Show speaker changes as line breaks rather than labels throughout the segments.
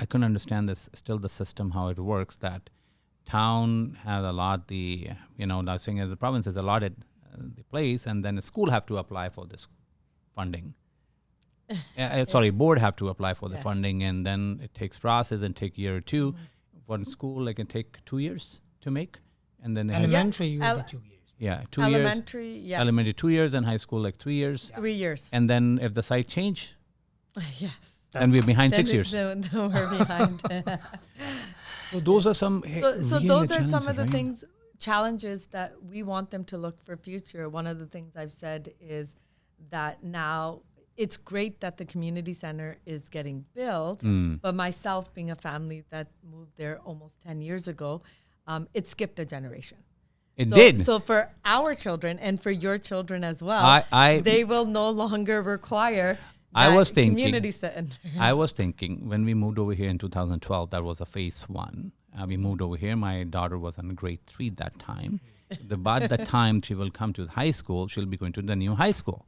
couldn't understand this still the system how it works that town has a lot the you know now saying the province is allotted uh, the place and then the school have to apply for this funding uh, uh, sorry board have to apply for the
Yes. Mm-hmm.
funding and then it takes process and take year or 2 for the school it can take two years to make and then they have,
Elementary, you
Ele-
would be two years.
yeah two years
elementary, yeah,
elementary two years and high school like three years
three years.
and then if the site change
yes.
then we're behind
Then
six
it-
years
Then, then we're behind.
so those are some eh,
so, so those are some of the things challenges that we want them to look for future one of the things i've said is that now it's great that the community center is getting built
Mm.
but myself being a family that moved there almost 10 years ago um, it skipped a generation
it
so,
did
so for our children and for your children as well
I- I-
they will no longer require
I
that
was thinking-
community center
I was thinking when we moved over here in 2012, that was a phase one. Uh, we moved over here. My daughter was in grade three that time. The, by the time she will come to high school, she'll be going to the new high school.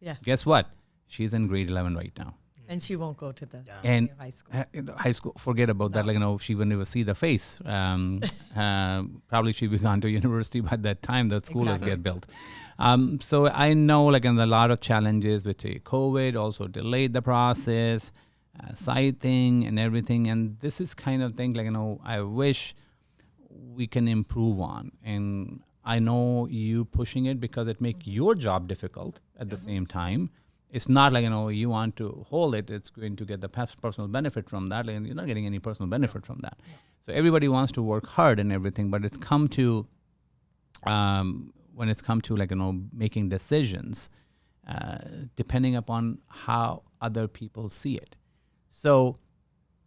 yes
Guess what? She's in grade 11 right now.
and she won't go to the
And
high
high
school
school, Uh, high school forget about that. Like, you know, she will never see the face. Um, um, probably she'll be gone to university by that time. The school has
Exactly.
get built. Um, so I know, like, and a lot of challenges with uh, COVID also delayed the process, uh, side thing and everything. And this is kind of thing, like, you know, I wish we can improve on. And I know you pushing it because it make your job difficult at the same time. It's not like you know you want to hold it. It's going to get the pers- personal benefit from that, and you're not getting any personal benefit from that. So everybody wants to work hard and everything, but it's come to um, when it's come to like you know making decisions, uh, depending upon how other people see it. So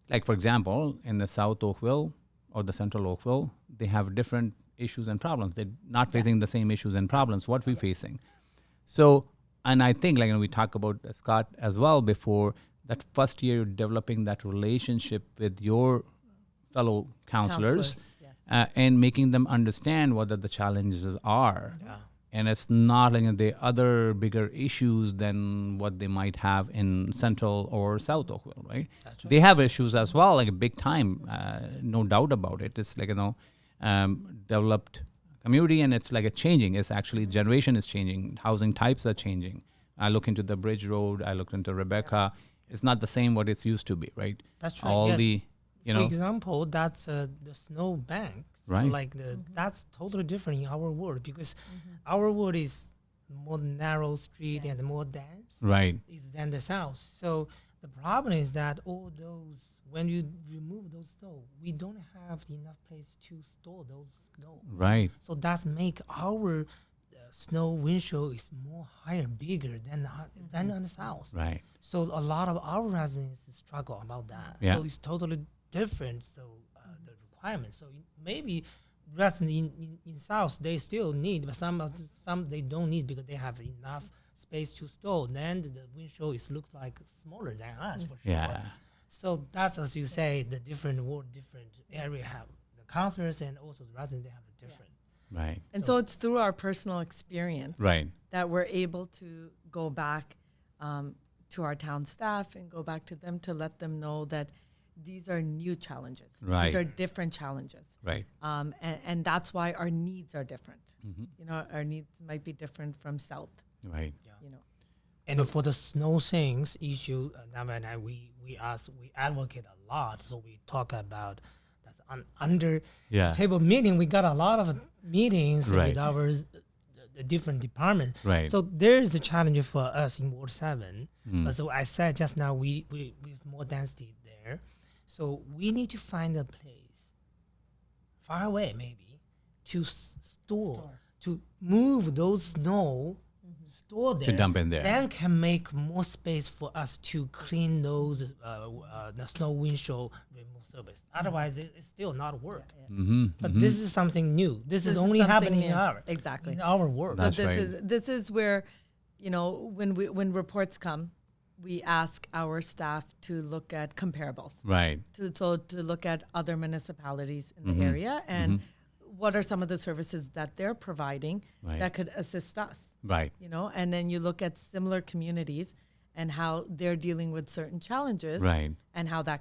like for example in the south oakville or the central oakville they have different issues and problems they're not facing the same issues and problems what we're facing so and i think like and we talked about uh, scott as well before that first year you're developing that relationship with your fellow counselors,
Counselors, yes.
uh, and making them understand what are the challenges are and it's not like the other bigger issues than what they might have in central or south oakville right they have issues as well like big time uh, no doubt about it it's like you know um, developed community and it's like a changing it's actually generation is changing housing types are changing i look into the bridge road i looked into rebecca it's not the same what it's used to be right
That's right,
all
yes.
the you know
For example, that's uh, the snow bank. So
Right.
like the that's totally different in our world because our world is more narrow street and more dense
right
is than the south. So the problem is that all those when you remove those snow, we don't have enough place to store those snow.
right
So that's make our uh, snow windshield is more higher, bigger than ho- than on the south.
right
So a lot of our residents struggle about that.
Yeah.
So it's totally different. So uh, the requirements. So in- maybe residents in, in, in South they still need, but some of the- some they don't need because they have enough space to store. Then the windshield is looks like smaller than us for sure.
Yeah.
So that's as you say, the different world, different area have the counselors and also the residents they have a different.
right
and so it's through our personal experience
right
that we're able to go back um, to our town staff and go back to them to let them know that these are new challenges.
Right.
These are different challenges.
right
Um, and, and that's why our needs are different.
Mm-hmm.
You know, our needs might be different from South,
right
you know.
And for the snow things issue, uh, Nava and I, we we ask, we advocate a lot. So we talk about that's un, under
Yeah.
table meeting. We got a lot of meetings
Right.
with our uh, the different departments.
Right. Mm.
So there is a challenge for us in Ward Seven. Uh, so I said just now, we we we have more density there. So we need to find a place far away maybe to s- store, to move those snow store there
dump in there.
then can make more space for us to clean those uh, w- uh, the snow windshield remove service otherwise it, it's still not work but
Mm-hmm.
this is something new this,
This
is
is
only
something
happening in
new.
our
Exactly.
in our world
That's
so this
right.
is this is where, you know, when we when reports come, we ask our staff to look at comparables.
right
to so to look at other municipalities in
Mm-hmm.
the area and what are some of the services that they're providing
Right.
that could assist us
right
you know and then you look at similar communities and how they're dealing with certain challenges
Right.
and how that